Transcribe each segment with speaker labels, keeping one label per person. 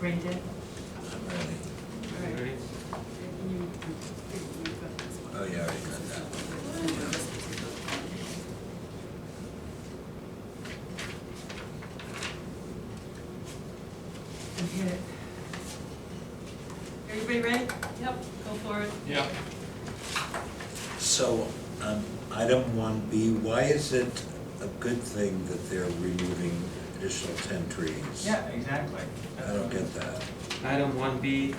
Speaker 1: Ray did?
Speaker 2: I'm ready.
Speaker 1: Alright.
Speaker 2: Oh, yeah, I already got that one.
Speaker 1: And hit it. Everybody ready?
Speaker 3: Yep, go for it.
Speaker 4: Yeah.
Speaker 2: So, um, item one B, why is it a good thing that they're removing additional ten trees?
Speaker 4: Yeah, exactly.
Speaker 2: I don't get that.
Speaker 4: Item one B,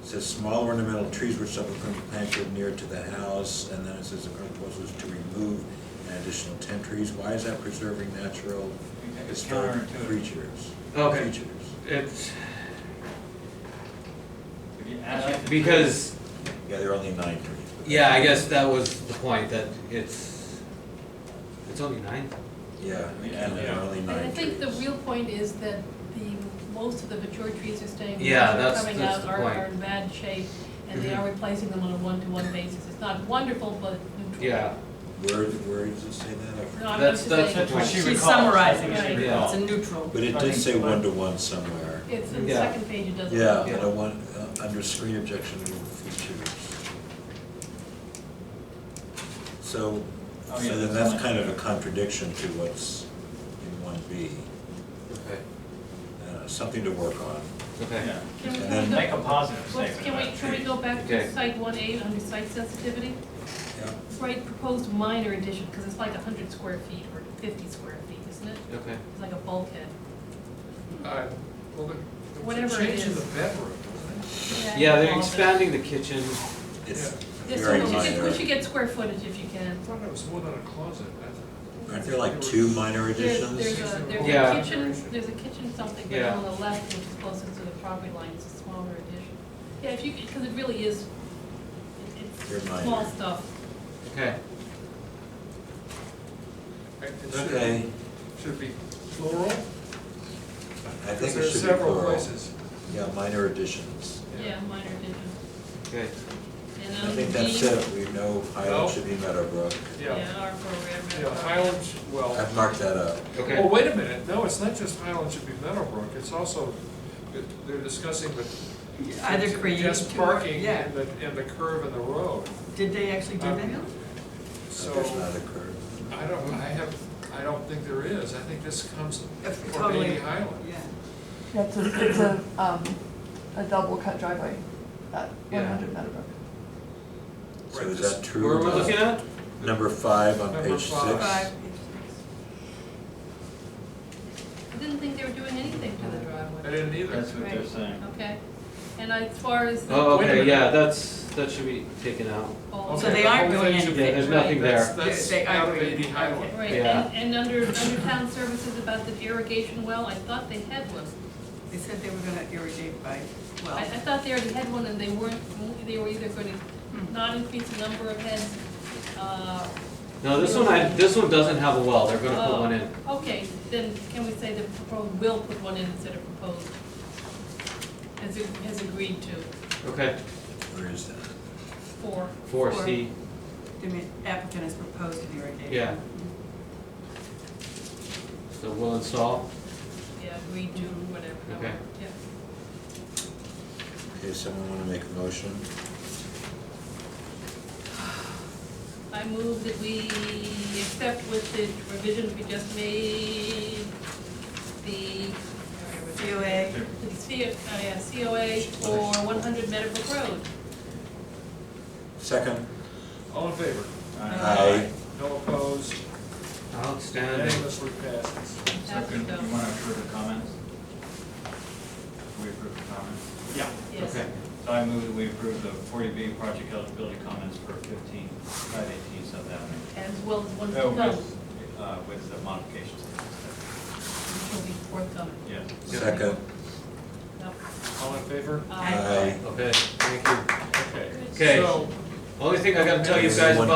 Speaker 2: It says small ornamental trees which shall be planted near to the house, and then it says the proposal is to remove an additional ten trees. Why is that preserving natural
Speaker 4: it's
Speaker 2: historic
Speaker 4: counterintuitive.
Speaker 2: creatures?
Speaker 4: Okay.
Speaker 2: Creatures.
Speaker 4: It's
Speaker 5: If you add up the
Speaker 4: because,
Speaker 2: Yeah, there are only nine trees. but-
Speaker 4: yeah, I guess that was the point, that it's, it's only nine.
Speaker 2: Yeah,
Speaker 5: Yeah.
Speaker 2: again, there are only
Speaker 3: And
Speaker 2: nine
Speaker 3: I
Speaker 2: trees.
Speaker 3: think the real point is that the, most of the mature trees are staying, the
Speaker 4: Yeah,
Speaker 3: ones that are
Speaker 4: that's-
Speaker 3: coming
Speaker 4: that's
Speaker 3: out
Speaker 4: the
Speaker 3: are,
Speaker 4: point. Mm-hmm.
Speaker 3: are in bad shape, and they are replacing them on a one-to-one basis. It's not wonderful, but neutral.
Speaker 4: Yeah,
Speaker 2: Where, where does it say that? I
Speaker 3: No,
Speaker 2: forget.
Speaker 3: I'm
Speaker 4: That's-
Speaker 3: just
Speaker 4: that's
Speaker 3: saying,
Speaker 5: That's what she recalls.
Speaker 1: She's summarizing,
Speaker 5: That's what she
Speaker 3: right.
Speaker 5: recalls.
Speaker 1: It's a neutral.
Speaker 2: But it
Speaker 5: I
Speaker 2: did
Speaker 5: think
Speaker 2: say
Speaker 5: so.
Speaker 2: one-to-one somewhere.
Speaker 3: it's, in the
Speaker 4: Yeah.
Speaker 3: second page, it doesn't.
Speaker 2: Yeah, but I want, uh, under screen objection to features. So,
Speaker 5: Oh, yeah,
Speaker 2: so then
Speaker 5: that's
Speaker 2: that's
Speaker 5: fine.
Speaker 2: kind of a contradiction to what's in one B,
Speaker 4: okay,
Speaker 2: uh, something to work on.
Speaker 4: okay.
Speaker 5: Yeah.
Speaker 3: Can we,
Speaker 2: And
Speaker 3: can
Speaker 2: then
Speaker 3: we
Speaker 5: Make
Speaker 3: go,
Speaker 5: a positive
Speaker 3: let's-
Speaker 5: statement
Speaker 3: can
Speaker 5: about
Speaker 3: we, can we
Speaker 5: trees.
Speaker 3: go back
Speaker 4: Okay.
Speaker 3: to site one eight under site sensitivity?
Speaker 2: Yeah.
Speaker 3: Right, proposed minor addition, because it's like hundred square feet or fifty square feet, isn't it?
Speaker 4: Okay.
Speaker 3: It's like a bulkhead.
Speaker 6: Uh, well, the- the
Speaker 3: Whatever it
Speaker 6: change in
Speaker 3: is.
Speaker 6: the bedroom, wasn't
Speaker 4: Yeah, they're
Speaker 3: involved in-
Speaker 4: expanding the kitchen,
Speaker 2: It's
Speaker 3: Yeah, so
Speaker 2: very
Speaker 3: we should get-
Speaker 2: minor.
Speaker 3: We should get square footage if you can.
Speaker 6: it? I thought it was more than a closet, that's.
Speaker 2: Aren't there like two minor
Speaker 3: There's,
Speaker 2: additions?
Speaker 3: there's a, there's a
Speaker 4: Yeah.
Speaker 3: kitchen, there's a kitchen something right
Speaker 4: Yeah.
Speaker 3: on the left, which is closest to the property line, it's a smaller addition. Yeah, if you, because it really is, it-
Speaker 2: They're
Speaker 3: it's
Speaker 2: minor.
Speaker 3: small stuff.
Speaker 4: okay,
Speaker 6: Right, it should-
Speaker 2: Okay,
Speaker 6: Should be plural,
Speaker 2: I
Speaker 6: because
Speaker 2: think it
Speaker 6: there's
Speaker 2: should be
Speaker 6: several
Speaker 2: plural.
Speaker 6: places.
Speaker 2: Yeah, minor additions.
Speaker 3: Yeah, minor addition.
Speaker 4: okay.
Speaker 3: And
Speaker 2: I
Speaker 3: under
Speaker 2: think that's
Speaker 3: D-
Speaker 2: it, we know
Speaker 6: No.
Speaker 2: Highland should be Meadowbrook.
Speaker 6: Yeah,
Speaker 3: Yeah, our program.
Speaker 6: yeah, Highland, well,
Speaker 2: I've marked that up.
Speaker 4: Okay.
Speaker 6: well, wait a minute, no, it's not just Highland should be Meadowbrook, it's also, it- they're discussing the.
Speaker 1: Either creating
Speaker 6: Just
Speaker 1: two or-
Speaker 6: parking
Speaker 1: yeah.
Speaker 6: and the, and the curve in the road,
Speaker 1: Did they actually do
Speaker 3: Oh,
Speaker 6: Um,
Speaker 1: that?
Speaker 6: so.
Speaker 2: There's not a curve.
Speaker 6: I don't, I have, I don't think there is, I think this comes
Speaker 1: If-
Speaker 6: from
Speaker 1: Totally.
Speaker 6: Bailey Highland.
Speaker 1: Yeah.
Speaker 7: Yeah, it's a, it's a, um, a double cut driveway at one hundred Meadowbrook.
Speaker 2: So
Speaker 6: Right,
Speaker 2: is
Speaker 6: this-
Speaker 2: that true?
Speaker 4: Where
Speaker 2: or
Speaker 4: we're
Speaker 2: not?
Speaker 4: looking at?
Speaker 2: Number five on
Speaker 6: Number
Speaker 2: page six.
Speaker 6: five.
Speaker 1: Five.
Speaker 3: I didn't think they were doing anything to the
Speaker 6: I
Speaker 3: driveway.
Speaker 6: didn't either.
Speaker 5: That's what they're
Speaker 3: Right.
Speaker 5: saying.
Speaker 3: Okay, and as far as the.
Speaker 4: Oh,
Speaker 6: Wait a
Speaker 4: okay,
Speaker 6: minute.
Speaker 4: yeah, that's, that should be taken out.
Speaker 3: bulk-
Speaker 1: So
Speaker 6: Okay,
Speaker 1: they
Speaker 6: the
Speaker 1: aren't
Speaker 6: whole
Speaker 1: doing
Speaker 6: thing should be-
Speaker 4: Yeah, there's
Speaker 3: Right.
Speaker 4: nothing
Speaker 6: That's,
Speaker 4: there.
Speaker 6: that's
Speaker 1: They- they
Speaker 6: out of
Speaker 1: agree.
Speaker 6: Bailey Highland.
Speaker 3: Right,
Speaker 4: Yeah.
Speaker 3: and, and under, under town services about the irrigation well, I thought they had one.
Speaker 1: They said they were gonna irrigate by, well,
Speaker 3: I, I thought they already had one and they weren't, they were either gonna not increase the number of heads, uh.
Speaker 4: No, this one, I, this one doesn't have a well, they're gonna put
Speaker 3: oh,
Speaker 4: one in.
Speaker 3: Okay, then can we say the proposed will put one in instead of proposed? Has, ag- has agreed to,
Speaker 4: Okay,
Speaker 2: Where is that?
Speaker 3: four.
Speaker 4: four C,
Speaker 1: the ma- applicant has proposed an irrigation.
Speaker 4: Yeah. so will install,
Speaker 3: Yeah, agreed to, whatever, no,
Speaker 4: Okay.
Speaker 3: yeah.
Speaker 2: Okay, someone want to make a motion?
Speaker 3: I move that we accept with the revisions we just made, the.
Speaker 1: COA,
Speaker 3: The C- uh, yeah, COA for one hundred Meadowbrook Road.
Speaker 2: Second?
Speaker 6: All in favor?
Speaker 2: Aye.
Speaker 6: No opposed?
Speaker 4: outstanding.
Speaker 6: Unanimously passes.
Speaker 5: So could, you wanna approve the comments? We approve the comments?
Speaker 6: Yeah.
Speaker 3: Yes.
Speaker 4: Okay.
Speaker 5: So I move that we approve the forty B project eligibility comments for fifteen, five eighteen South Avenue.
Speaker 3: As well as one,
Speaker 5: Oh,
Speaker 3: no,
Speaker 5: with, uh, with the modifications.
Speaker 3: which will be forthcoming,
Speaker 5: Yeah.
Speaker 2: Second?
Speaker 3: no.
Speaker 6: All in favor?
Speaker 3: Uh,
Speaker 2: Aye.
Speaker 4: Okay, thank you.
Speaker 6: Okay.
Speaker 4: Okay.
Speaker 6: So,
Speaker 4: Only thing I gotta tell you guys about.